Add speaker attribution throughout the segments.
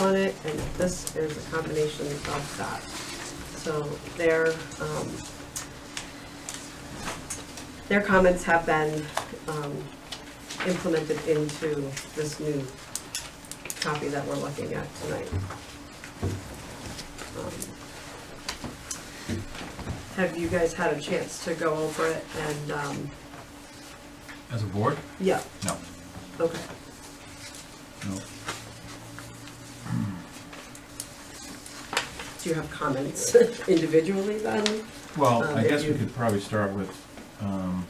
Speaker 1: on it, and this is a combination of that. So their, um, their comments have been, um, implemented into this new copy that we're looking at tonight. Um, Have you guys had a chance to go over it and, um,
Speaker 2: As a board?
Speaker 1: yeah,
Speaker 2: No.
Speaker 1: okay.
Speaker 2: No.
Speaker 1: Do you have comments individually then?
Speaker 2: Well,
Speaker 1: Um,
Speaker 2: I guess we
Speaker 1: you-
Speaker 2: could probably start with, um,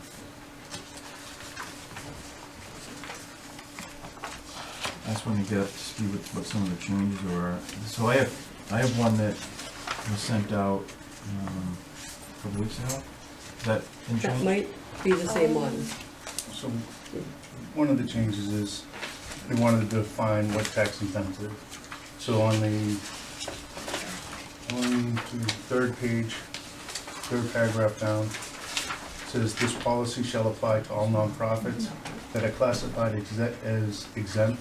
Speaker 2: I just want to get up to speed with what some of the changes were. So I have, I have one that was sent out, um, a couple weeks ago. Is that in
Speaker 1: That
Speaker 2: change?
Speaker 1: might be the same one.
Speaker 3: So, one of the changes is, we wanted to define what tax incentive. So on the, on the third page, third paragraph down, says this policy shall apply to all nonprofits that are classified exe- as exempt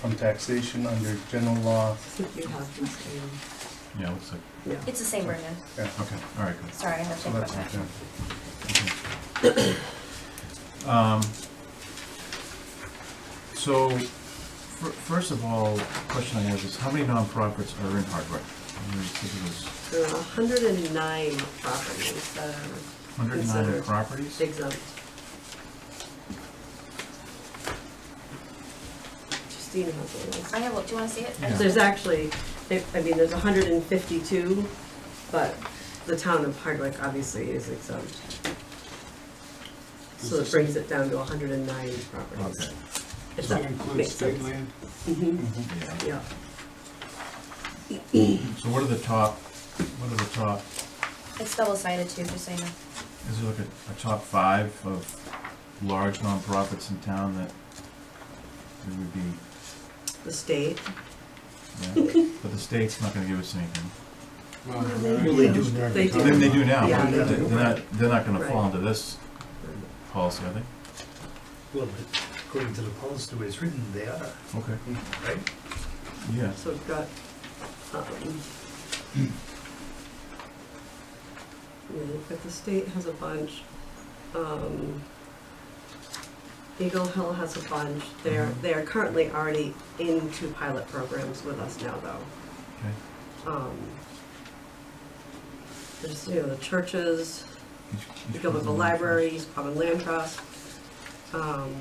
Speaker 3: from taxation under general law.
Speaker 1: I think you have the same,
Speaker 2: Yeah, it looks like,
Speaker 1: yeah.
Speaker 4: It's the same version.
Speaker 3: Yeah,
Speaker 2: okay, all right, good.
Speaker 4: Sorry, I have to
Speaker 3: so
Speaker 4: think about
Speaker 3: that's
Speaker 4: that.
Speaker 3: okay.
Speaker 2: Um, So, fir- first of all, question I have is, how many nonprofits are in Hardwick? I mean, I think it was
Speaker 1: There are hundred and nine properties that are
Speaker 2: 109
Speaker 1: Considered.
Speaker 2: properties?
Speaker 1: exempt. Justine has a list.
Speaker 4: I have, one. do you wanna see it? I
Speaker 2: Yeah.
Speaker 4: just-
Speaker 1: There's actually, there- I mean, there's hundred and fifty-two, but the town of Hardwick obviously is exempt. So it brings it down to hundred and nine properties.
Speaker 2: Okay,
Speaker 1: If
Speaker 5: Does
Speaker 1: that
Speaker 5: that include
Speaker 1: makes
Speaker 5: state
Speaker 1: sense.
Speaker 5: land?
Speaker 1: Mhm,
Speaker 3: Mhm.
Speaker 2: yeah.
Speaker 1: yeah.
Speaker 2: So what are the top, what are the top,
Speaker 4: It's double sided too, just so you know.
Speaker 2: is it like a, a top five of large nonprofits in town that there would be,
Speaker 1: The state,
Speaker 2: yeah? But the state's not gonna give us anything.
Speaker 5: Well,
Speaker 1: Well,
Speaker 5: they
Speaker 1: they
Speaker 5: do.
Speaker 1: They do.
Speaker 2: They, they do now,
Speaker 1: Yeah,
Speaker 2: but
Speaker 1: they
Speaker 2: they're
Speaker 1: do.
Speaker 2: they're not, they're not gonna fall
Speaker 1: Right.
Speaker 2: into this policy, are they?
Speaker 5: Well, but according to the policy, the way it's written, they are,
Speaker 2: Okay,
Speaker 5: right?
Speaker 2: yeah.
Speaker 1: so we've got, um. yeah, But the state has a bunch, um. Eagle Hill has a bunch, they're,
Speaker 2: Mhm.
Speaker 1: they're currently already into pilot programs with us now though.
Speaker 2: Okay.
Speaker 1: um, there's, you know, the churches,
Speaker 2: Each-
Speaker 1: the
Speaker 2: each
Speaker 1: Guild of the
Speaker 2: person-
Speaker 1: Libraries, Common Land Trust, um,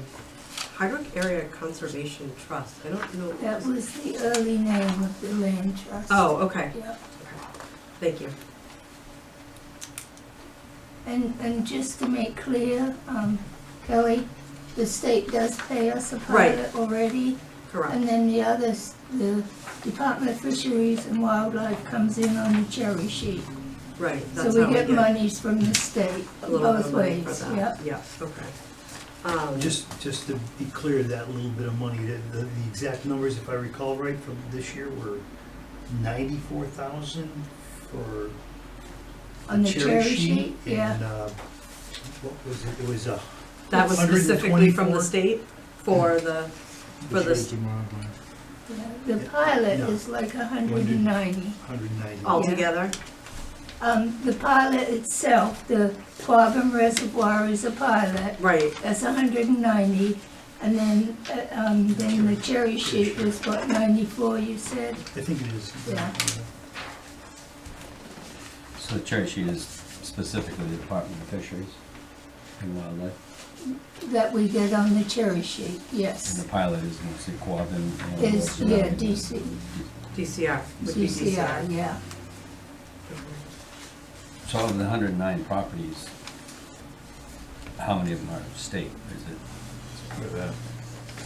Speaker 1: Hardwick Area Conservation Trust, I don't know.
Speaker 6: That was the early name of the land trust.
Speaker 1: Oh, okay,
Speaker 6: Yeah,
Speaker 1: thank you.
Speaker 6: and, and just to make clear, um, Kelly, the state does pay us a
Speaker 1: Right.
Speaker 6: pilot already. And
Speaker 1: Correct,
Speaker 6: then the others, the Department of Fisheries and Wildlife comes in on the cherry sheet.
Speaker 1: right,
Speaker 6: So
Speaker 1: that's
Speaker 6: we
Speaker 1: how we
Speaker 6: get
Speaker 1: get
Speaker 6: monies from the state,
Speaker 1: a little bit
Speaker 6: both
Speaker 1: of money for
Speaker 6: ways, yeah.
Speaker 1: that, yeah, okay. Um,
Speaker 5: Just, just to be clear, that little bit of money, the, the the exact numbers, if I recall right, from this year were ninety-four thousand for
Speaker 6: On the
Speaker 5: cherry
Speaker 6: sheet,
Speaker 5: sheet.
Speaker 6: yeah.
Speaker 5: And, uh, what was it, it was uh, a.
Speaker 1: that was specifically from the state for the, for the, s-
Speaker 6: yeah. The pilot
Speaker 5: Yeah.
Speaker 6: is like a hundred and ninety.
Speaker 5: Hundred and ninety.
Speaker 6: Oh.
Speaker 1: altogether,
Speaker 6: Um, the pilot itself, the Quabbin Reservoir is a pilot.
Speaker 1: right,
Speaker 6: That's hundred and ninety, and then, uh, um, then the cherry sheet was what, ninety-four, you said?
Speaker 5: I think it is.
Speaker 6: Yeah.
Speaker 7: So the cherry sheet is specifically the Department of Fisheries and Wildlife,
Speaker 6: That we get on the cherry sheet,
Speaker 7: and
Speaker 6: yes.
Speaker 7: the pilot is mostly Quabbin. and
Speaker 6: Is-
Speaker 7: Rosedale.
Speaker 6: yeah, DC.
Speaker 1: DCR, would be
Speaker 6: DCR, yeah.
Speaker 7: So of the hundred and nine properties, how many of them are state, is it?
Speaker 2: Look at that.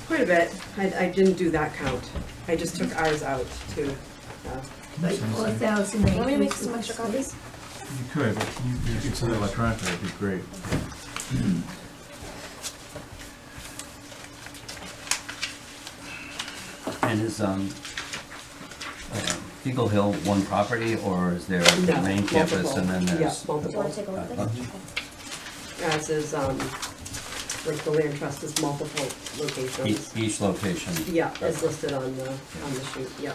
Speaker 1: Quite a bit. I, I didn't do that count. I just took ours out too. Uh,
Speaker 6: Like
Speaker 2: Sounds
Speaker 6: four
Speaker 2: like-
Speaker 6: thousand acres.
Speaker 4: Want me to make some
Speaker 6: of
Speaker 4: extra
Speaker 6: state.
Speaker 4: copies?
Speaker 2: You could, but you, you could send it electronically, it'd be great.
Speaker 7: And is, um, um, Eagle Hill one property, or is there
Speaker 1: No,
Speaker 7: the main campus
Speaker 1: multiple.
Speaker 7: and then
Speaker 1: Yeah,
Speaker 7: there's? the-
Speaker 4: Do you wanna take a look at
Speaker 7: Uh,
Speaker 4: it?
Speaker 3: Uh-huh.
Speaker 4: Okay.
Speaker 1: Ours is, um, like the land trust is multiple
Speaker 7: e-
Speaker 1: locations.
Speaker 7: Each location?
Speaker 1: Yeah, it's listed on the, on the sheet, yeah.